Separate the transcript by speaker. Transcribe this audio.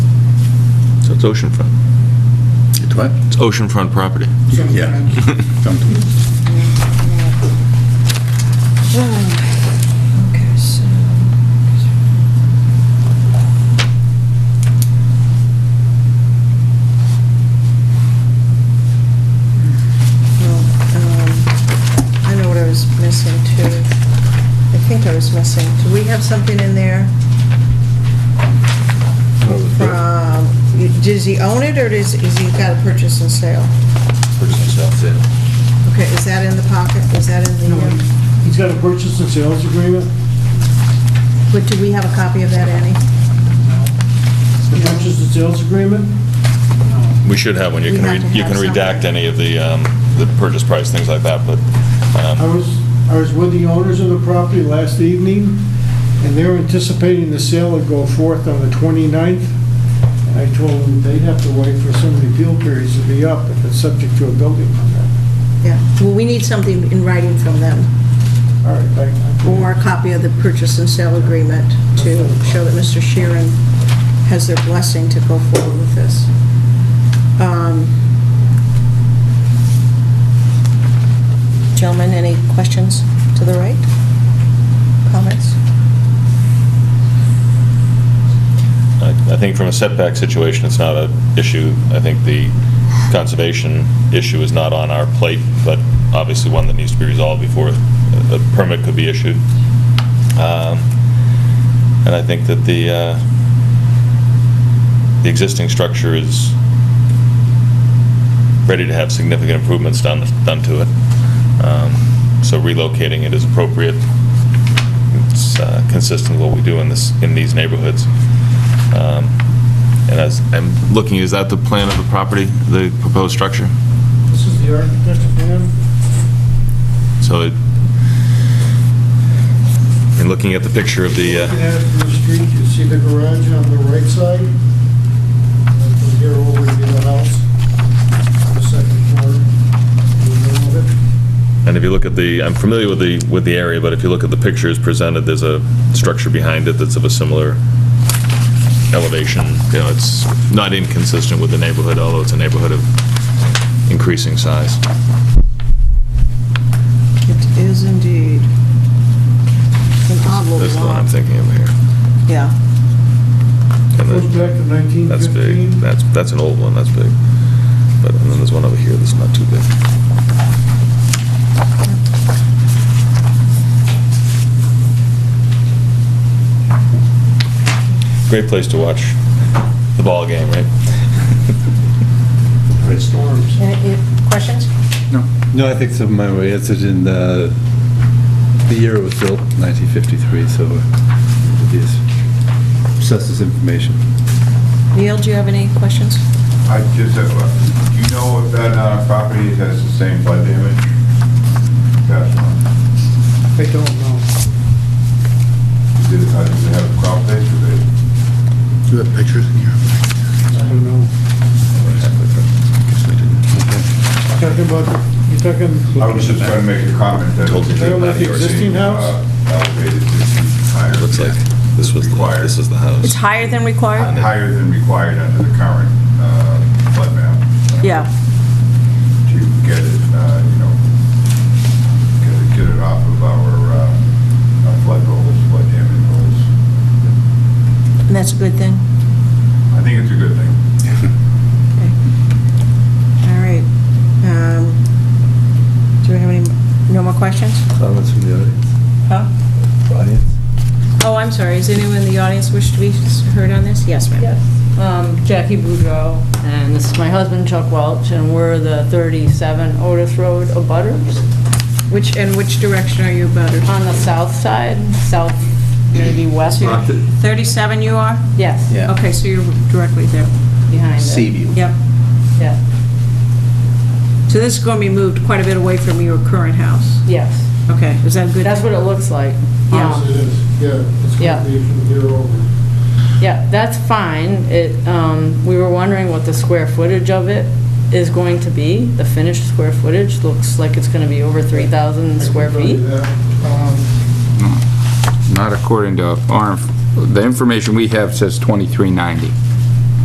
Speaker 1: It's oceanfront.
Speaker 2: It's what?
Speaker 1: It's oceanfront property.
Speaker 2: Yeah. Something.
Speaker 3: Okay, so. Well, um, I know what I was missing too. I think I was missing. Do we have something in there? From, does he own it or does, is he got a purchase and sale? Okay, is that in the pocket? Is that in the, uh,
Speaker 4: He's got a purchase and sales agreement.
Speaker 3: but do we have a copy of that, Annie?
Speaker 4: The purchase and sales agreement?
Speaker 5: We should have one. You
Speaker 3: We
Speaker 5: can,
Speaker 3: have
Speaker 5: re-
Speaker 3: to
Speaker 5: you
Speaker 3: have
Speaker 5: can redact
Speaker 3: something.
Speaker 5: any of the, um, the purchase price, things like that, but,
Speaker 4: I
Speaker 5: um,
Speaker 4: was, I was with the owners of the property last evening, and they're anticipating the sale to go forth on the 29th. And I told them they'd have to wait for some of the appeal periods to be up if it's subject to a building permit.
Speaker 3: Yeah, well, we need something in writing from them,
Speaker 4: All right, I- I-
Speaker 3: or a copy of the purchase and sale agreement to show that Mr. Sheeran has their blessing to go forward with this. Um, Gentlemen, any questions to the right? Comments?
Speaker 5: I I think from a setback situation, it's not an issue. I think the conservation issue is not on our plate, but obviously one that needs to be resolved before a a permit could be issued. Um, And I think that the, uh, the existing structure is ready to have significant improvements done, done to it. Um, So relocating it is appropriate. It's uh, consistent with what we do in this, in these neighborhoods. Um, And as I'm looking, is that the plan of the property, the proposed structure?
Speaker 4: This is the architect plan.
Speaker 5: So it, and looking at the picture of the,
Speaker 4: Looking
Speaker 5: uh,
Speaker 4: at it from the street, you see the garage on the right side. And From here over to the house, the second floor, the middle of it.
Speaker 5: and if you look at the, I'm familiar with the, with the area, but if you look at the pictures presented, there's a structure behind it that's of a similar elevation. You know, it's not inconsistent with the neighborhood, although it's a neighborhood of increasing size.
Speaker 3: It is indeed an odd little
Speaker 5: That's the one
Speaker 3: lot.
Speaker 5: I'm thinking of here.
Speaker 3: Yeah.
Speaker 5: And
Speaker 4: Goes
Speaker 5: then-
Speaker 4: back to 1915.
Speaker 5: That's big. That's, that's an old one, that's big. But, and then there's one over here that's not too big. Great place to watch the ball game, right?
Speaker 4: Great storms.
Speaker 3: Any any questions?
Speaker 6: No, I think some of my way answered in the, the year it was built, 1953, so uh, it is, assesses information.
Speaker 3: Neil, do you have any questions?
Speaker 7: I just have, a- do you know if that uh, property has the same flood damage? That's one.
Speaker 4: I don't know.
Speaker 7: Did it, uh, does it have a crop base or did it?
Speaker 2: Do you have pictures in here?
Speaker 4: I don't know.
Speaker 2: Guess I didn't.
Speaker 4: Talking about, you're talking.
Speaker 7: I was just trying to make a comment that.
Speaker 5: Told you
Speaker 4: They don't have the existing house?
Speaker 7: Uh, Elevated to higher.
Speaker 5: Looks like
Speaker 7: than
Speaker 5: this was, the-
Speaker 7: Required,
Speaker 5: this is the house.
Speaker 3: It's higher than required?
Speaker 7: higher than required under the current uh, flood map.
Speaker 3: Yeah.
Speaker 7: To get it, uh, you know, get it, get it off of our uh, our flood goals, flood damage goals.
Speaker 3: And that's a good thing?
Speaker 7: I think it's a good thing.
Speaker 3: All right. Um, Do we have any, no more questions?
Speaker 6: Comments from the audience?
Speaker 3: Huh?
Speaker 6: Audience?
Speaker 3: Oh, I'm sorry. Is anyone in the audience wish to be heard on this? Yes, ma'am.
Speaker 8: Um, Jackie Boudreau, and this is my husband Chuck Welch, and we're the 37 Otis Road abutters
Speaker 3: Which, and which direction are you butters?
Speaker 8: on the south side, south, maybe west,
Speaker 3: 37 you are?
Speaker 8: yes,
Speaker 2: Yeah.
Speaker 3: Okay, so you're directly there.
Speaker 8: behind it.
Speaker 2: Seaview.
Speaker 3: Yep.
Speaker 8: Yeah,
Speaker 3: So this is going to be moved quite a bit away from your current house.
Speaker 8: Yes,
Speaker 3: Okay, is that good?
Speaker 8: that's what it looks like. Um,
Speaker 4: Yes,
Speaker 8: Yeah,
Speaker 4: it is, yeah. It's
Speaker 8: Yeah.
Speaker 4: gonna be from here over.
Speaker 8: yeah, that's fine. It, um, we were wondering what the square footage of it is going to be. The finished square footage looks like it's gonna be over 3,000 square
Speaker 4: I can tell
Speaker 8: feet.
Speaker 4: you that. Um,
Speaker 9: Not according to our, inf- the information we have says 2390.